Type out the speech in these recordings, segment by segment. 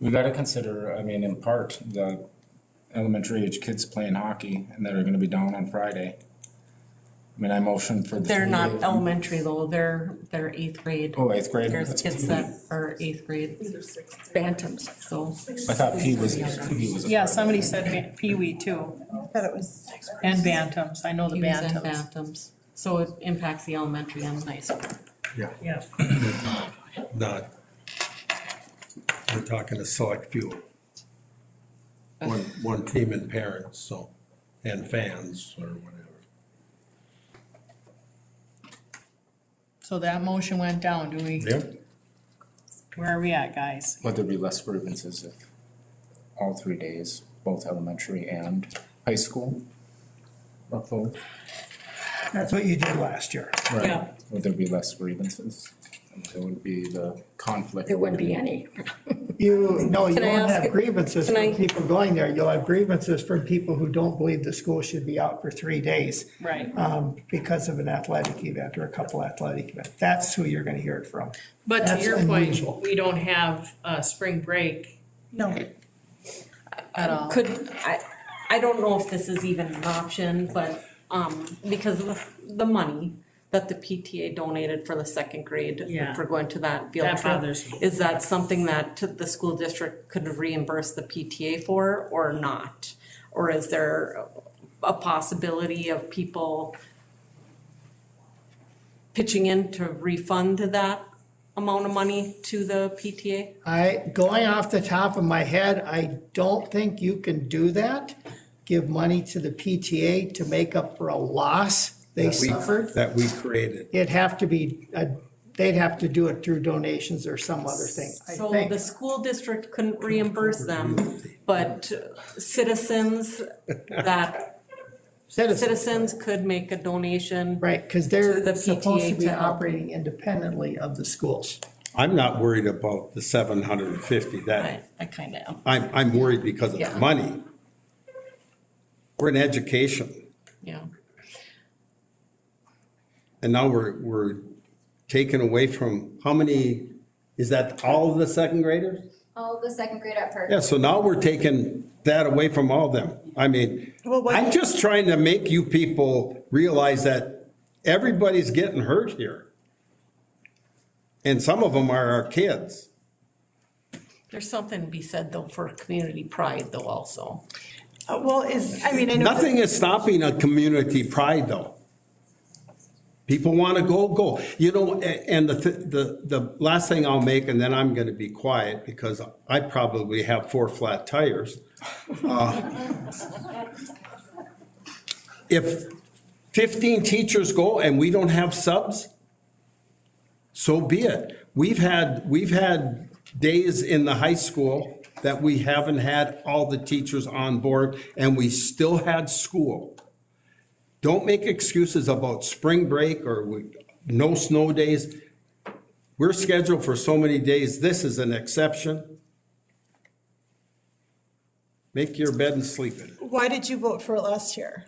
We gotta consider, I mean, in part, the elementary age kids playing hockey and that are gonna be down on Friday. I mean, I motion for. the They're three not days. elementary though, they're, they're eighth grade. Oh, eighth grade? There's That's kids P. that are eighth grade. Bantams, so. I thought P was, P was. a Yeah, Friday. somebody said ba- peewee too, I thought it was, and bantams, I know the Hughes and bantams. Bantams. So it impacts the elementary and the high school. Yeah, not, we're talking a select few. One, one team and parents, so, and fans or whatever. so that motion went down, do we, Yep. where are we at, guys? But there'd be less grievances if all three days, both elementary and high school. are full. That's what you did last year. Right. Yeah. Would there be less grievances? And There would be the conflict. There wouldn't be any. You, no, you Can I won't ask- have grievances can from I- people going there. You'll have grievances from people who don't believe the school should be out for three days Right, um, because of an athletic event or a couple athletic events. That's who you're gonna hear it from. but to That's your point, unusual. we don't have a spring break no, at all. Could, I, I don't know if this is even an option, but, um, because of the, the money that the PTA donated for the second grade, Yeah. for going to that field trip. That bothers me. Is that something that to- the school district could reimburse the PTA for or not? Or is there a possibility of people pitching in to refund that amount of money to the PTA? I, going off the top of my head, I don't think you can do that. Give money to the PTA to make up for a loss they That we- suffered. That we created. It'd have to be, uh, they'd have to do it through donations or some other thing, I So think. the school district couldn't reimburse them, but citizens that, Citizens, citizens could make a donation. right, because To the they're PTA supposed to be to help. operating independently of the schools. I'm not worried about the seven hundred and fifty, I, that, I um, kind of am. I'm, I'm worried because of Yeah. the money. We're in education, Yeah, and now we're, we're taken away from, how many, is that all of the second graders? All of the second grade at Park. Yeah, so now we're taking that away from all them. I mean, Well, what- I'm just trying to make you people realize that everybody's getting hurt here. And some of them are our kids. there's something to be said though for community pride though also. Uh, well, is, I mean, I know. Nothing is stopping a community pride, though. People want to go, go. You know, a- and the, th- the, the last thing I'll make, and then I'm going to be quiet because I probably have four flat tires. Uh, If fifteen teachers go and we don't have subs, so be it. We've had, we've had days in the high school that we haven't had all the teachers on board and we still had school. Don't make excuses about spring break or we- no snow days. We're scheduled for so many days. This is an exception. Make your bed and sleep in it. Why did you vote for it last year?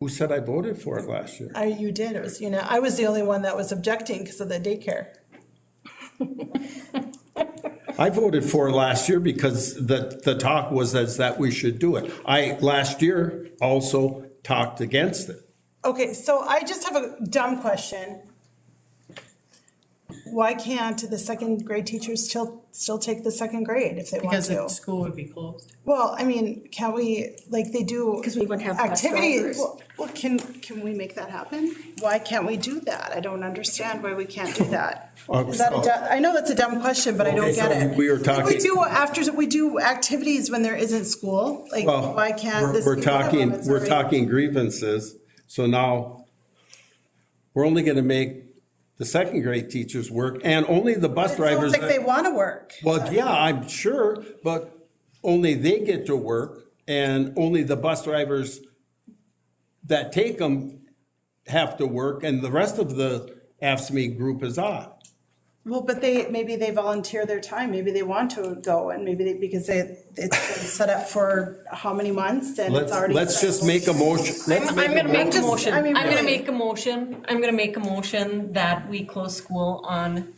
Who said I voted for it last year? I, you did, it was, you know, I was the only one that was objecting because of the daycare. I voted for it last year because the, the talk was as that we should do it. I, last year, also talked against it. Okay, so I just have a dumb question. Why can't the second grade teachers still, still take the second grade if they want Because the to? school would be closed. Well, I mean, can we, like, they do. 'Cause we wouldn't have activity- leftovers. Well, well, can, can we make that happen? Why can't we do that? I don't understand why we can't do that. Oh, Is that a so- du- I know that's a dumb question, but I don't Okay, get so it. we were If talking- We do after, we do activities when there isn't school, like, Well, why can't we're- this? We're be one of them? talking, It's we're already- talking grievances, so now we're only gonna make the second grade teachers work and only the bus It sounds drivers. like they want to work. Well, yeah, I'm sure, but only they get to work and only the bus drivers that take them have to work and the rest of the AFSMI E group is off. Well, but they, maybe they volunteer their time, maybe they want to go and maybe they, because they, it's been set up for how many months and Let's, it's already. let's set. just make a motion, let's I'm make gonna a make a motion. motion, I I'm mean, gonna really. make a motion, I'm gonna make a motion that we close school on